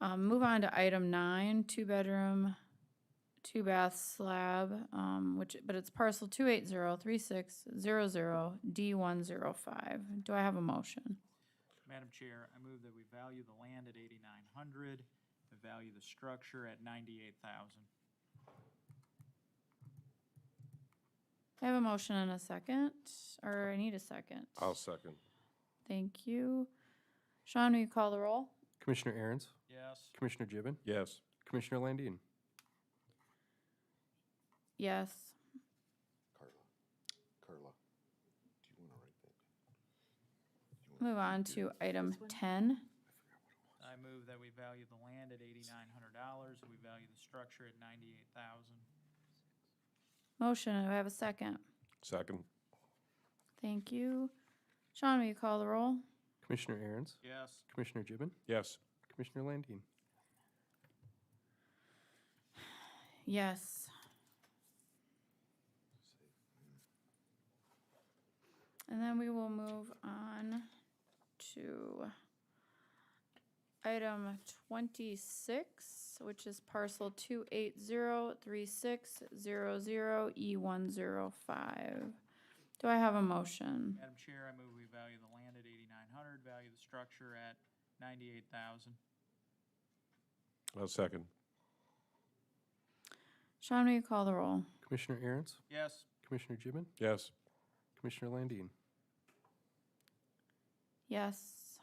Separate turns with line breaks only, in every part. Um, move on to item nine, two-bedroom, two-bath slab, um, which, but it's parcel two eight zero three six zero zero D one zero five. Do I have a motion?
Madam Chair, I move that we value the land at eighty-nine hundred, value the structure at ninety-eight thousand.
I have a motion and a second, or I need a second.
I'll second.
Thank you. Sean, will you call the roll?
Commissioner Aaron's,
Yes.
Commissioner Gibbon,
Yes.
Commissioner Landine,
Yes.
Carla, Carla, do you want to write that? Do you wanna-
Move on
do-
to item ten.
I move that we value the land at eighty-nine hundred dollars, we value the structure at ninety-eight thousand.
Motion, do I have a second?
Second.
Thank you. Sean, will you call the roll?
Commissioner Aaron's,
Yes.
Commissioner Gibbon,
Yes.
Commissioner Landine.
Yes. And then we will move on to item twenty-six, which is parcel two eight zero three six zero zero E one zero five. Do I have a motion?
Madam Chair, I move we value the land at eighty-nine hundred, value the structure at ninety-eight thousand.
I'll second.
Sean, will you call the roll?
Commissioner Aaron's,
Yes.
Commissioner Gibbon,
Yes.
Commissioner Landine.
Yes.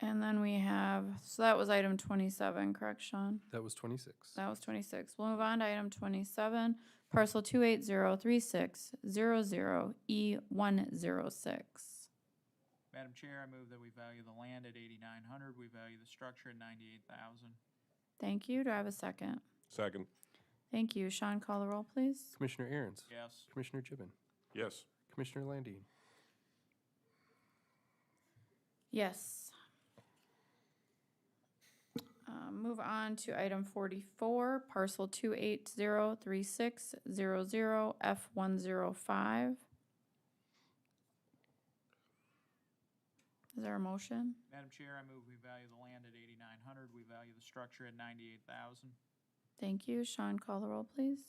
And then we have, so that was item twenty-seven, correct, Sean?
That was twenty-six.
That was twenty-six. We'll move on to item twenty-seven, parcel two eight zero three six zero zero E one zero six.
Madam Chair, I move that we value the land at eighty-nine hundred, we value the structure at ninety-eight thousand.
Thank you. Do I have a second?
Second.
Thank you. Sean, call the roll, please.
Commissioner Aaron's,
Yes.
Commissioner Gibbon,
Yes.
Commissioner Landine.
Yes. Uh, Move on to item forty-four, parcel two eight zero three six zero zero F one zero five. Is there a motion?
Madam Chair, I move we value the land at eighty-nine hundred, we value the structure at ninety-eight thousand.
Thank you. Sean, call the roll, please.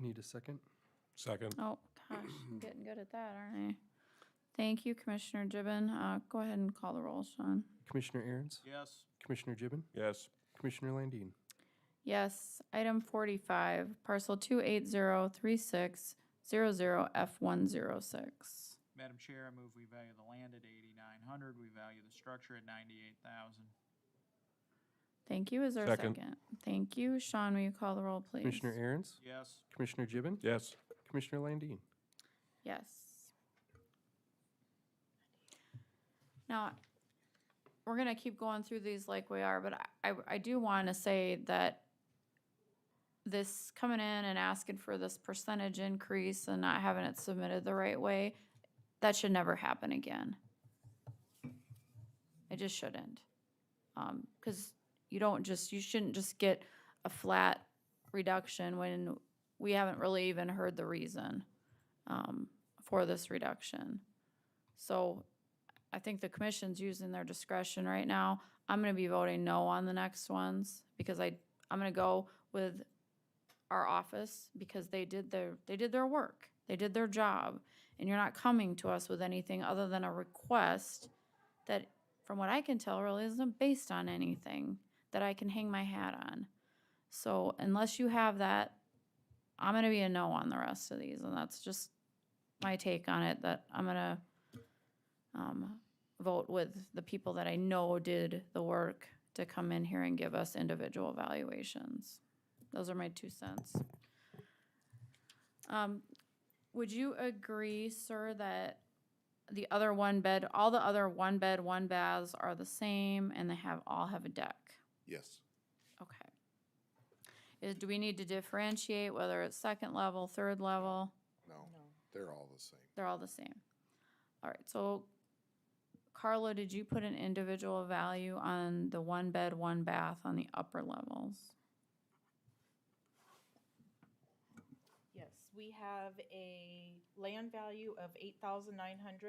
I need a second.
Second.
Oh, gosh, I'm getting good at that, aren't I? Thank you, Commissioner Gibbon. Uh, go ahead and call the roll, Sean.
Commissioner Aaron's,
Yes.
Commissioner Gibbon,
Yes.
Commissioner Landine.
Yes, item forty-five, parcel two eight zero three six zero zero F one zero six.
Madam Chair, I move we value the land at eighty-nine hundred, we value the structure at ninety-eight thousand.
Thank you, is there a
Second.
second? Thank you, Sean, will you call the roll, please?
Commissioner Aaron's,
Yes.
Commissioner Gibbon,
Yes.
Commissioner Landine.
Yes. Now, we're gonna keep going through these like we are, but I, I- I do wanna say that this coming in and asking for this percentage increase and not having it submitted the right way, that should never happen again. It just shouldn't. Um, cause you don't just, you shouldn't just get a flat reduction when we haven't really even heard the reason um, for this reduction. So I think the commission's using their discretion right now. I'm gonna be voting no on the next ones because I, I'm gonna go with our office because they did their, they did their work. They did their job. And you're not coming to us with anything other than a request that, from what I can tell, really isn't based on anything that I can hang my hat on. So unless you have that, I'm gonna be a no on the rest of these, and that's just my take on it, that I'm gonna um, vote with the people that I know did the work to come in here and give us individual evaluations. Those are my two cents. Um, would you agree, sir, that the other one bed, all the other one bed, one baths are the same and they have, all have a deck?
Yes,
Okay. Is, do we need to differentiate whether it's second level, third level?
no, they're all the same.
They're all the same. All right, so Carla, did you put an individual value on the one bed, one bath on the upper levels?
Yes, we have a land value of eight thousand nine hundred.